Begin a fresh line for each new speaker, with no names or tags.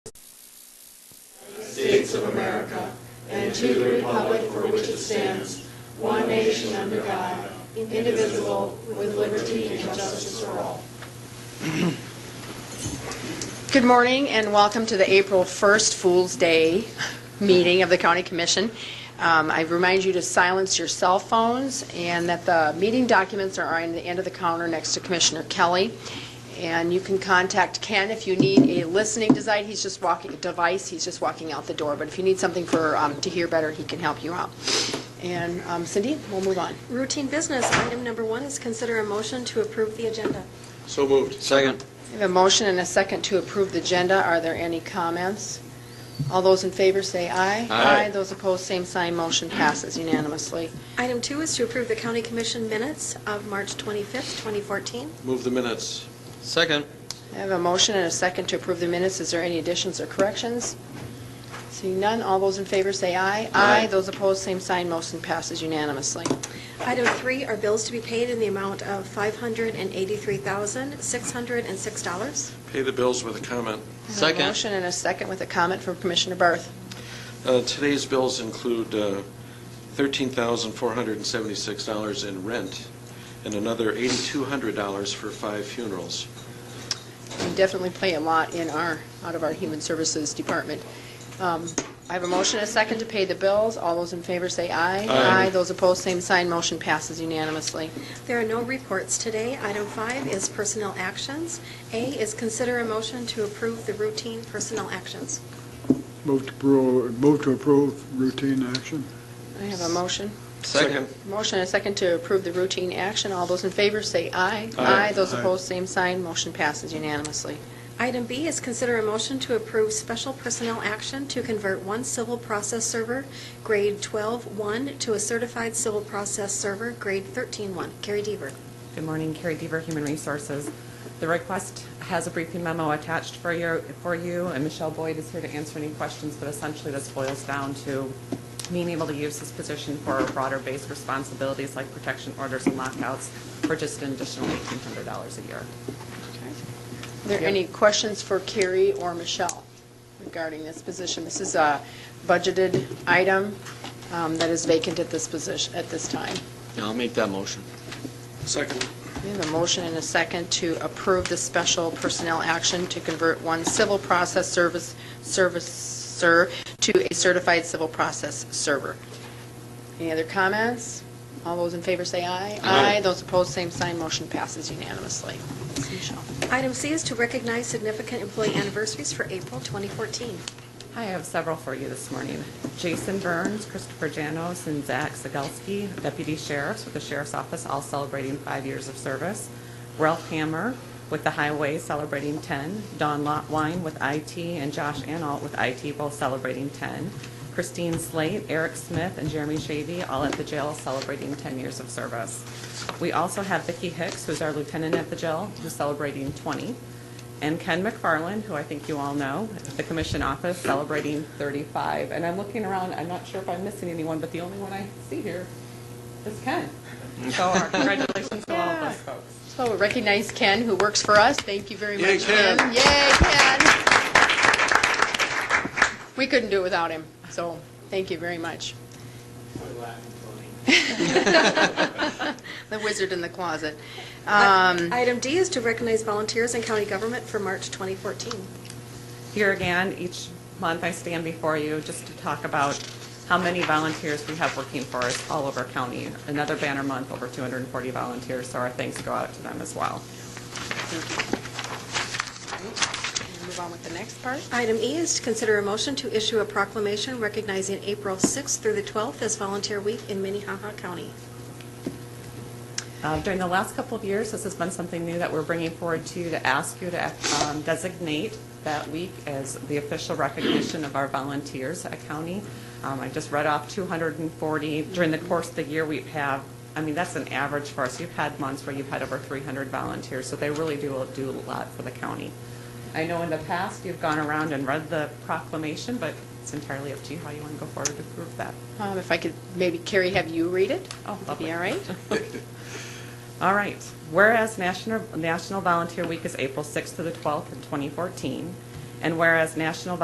States of America and to the republic for which it stands, one nation under God, indivisible, with liberty and justice for all.
Good morning and welcome to the April 1st Fool's Day meeting of the County Commission. Um, I remind you to silence your cell phones and that the meeting documents are on the end of the counter next to Commissioner Kelly. And you can contact Ken if you need a listening device. He's just walking, device, he's just walking out the door. But if you need something for, um, to hear better, he can help you out. And um, Cindy, we'll move on.
Routine business, item number one is consider a motion to approve the agenda.
So moved. Second.
We have a motion and a second to approve the agenda. Are there any comments? All those in favor say aye.
Aye.
Those opposed, same sign. Motion passes unanimously.
Item two is to approve the county commission minutes of March 25th, 2014.
Move the minutes. Second.
I have a motion and a second to approve the minutes. Is there any additions or corrections? Seeing none, all those in favor say aye.
Aye.
Those opposed, same sign. Motion passes unanimously.
Item three are bills to be paid in the amount of $583,606.
Pay the bills with a comment.
I have a motion and a second with a comment from Commissioner Barth.
Uh, Today's bills include uh, $13,476 in rent and another $8,200 for five funerals.
We definitely play a lot in our, out of our Human Services Department. Um, I have a motion and a second to pay the bills. All those in favor say aye.
Aye.
Those opposed, same sign. Motion passes unanimously.
There are no reports today. Item five is personnel actions. A is consider a motion to approve the routine personnel actions.
Move to approve, move to approve routine action.
I have a motion.
Second.
Motion and a second to approve the routine action. All those in favor say aye.
Aye.
Those
Aye.
opposed, same sign. Motion passes unanimously.
Item B is consider a motion to approve special personnel action to convert one civil process server, grade 12-1, to a certified civil process server, grade 13-1. Carrie Deaver.
Good morning, Carrie Dever, Human Resources. The request has a briefing memo attached for your, for you, and Michelle Boyd is here to answer any questions, but essentially this boils down to being able to use this position for broader-based responsibilities like protection orders and lockouts for just an additional $1,800 a year.
Are there any questions for Carrie or Michelle regarding this position? This is a budgeted item um, that is vacant at this position, at this time.
I'll make that motion.
Second.
We have a motion and a second to approve the special personnel action to convert one civil process service, servicer to a certified civil process server. Any other comments? All those in favor say aye.
Aye.
Those opposed, same sign. Motion passes unanimously. Michelle.
Item C is to recognize significant employee anniversaries for April 2014.
Hi, I have several for you this morning. Jason Burns, Christopher Janos, and Zach Zagelski, deputy sheriffs with the sheriff's office, all celebrating five years of service. Ralph Hammer with the highway celebrating 10. Don Lotwine with IT and Josh Analt with IT, both celebrating 10. Christine Slate, Eric Smith, and Jeremy Shavy, all at the jail celebrating 10 years of service. We also have Vicki Hicks, who's our lieutenant at the jail, who's celebrating 20. And Ken McFarland, who I think you all know, at the commission office celebrating 35. And I'm looking around, I'm not sure if I'm missing anyone, but the only one I see here is Ken. So our congratulations to all of those folks.
So we recognize Ken, who works for us. Thank you very
Yay,
much, Ken.
Ken.
Yay, Ken. We couldn't do it without him, so thank you very much. The wizard in the closet. Um,
Item D is to recognize volunteers in county government for March 2014.
Here again, each month I stand before you just to talk about how many volunteers we have working for us all over county. Another banner month, over 240 volunteers, so our thanks go out to them as well.
Move on with the next part.
Item E is to consider a motion to issue a proclamation recognizing April 6th through the 12th as Volunteer Week in Minnehaha County.
Uh, During the last couple of years, this has been something new that we're bringing forward to you to ask you to um, designate that week as the official recognition of our volunteers at county. Um, I just read off 240. During the course of the year, we have, I mean, that's an average for us. You've had months where you've had over 300 volunteers, so they really do do a lot for the county. I know in the past, you've gone around and read the proclamation, but it's entirely up to you how you want to go forward to prove that.
Um, If I could, maybe Carrie, have you read it?
Oh,
Would that be
lovely.
all right?
All right. Whereas National National Volunteer Week is April 6th to the 12th in 2014, and whereas National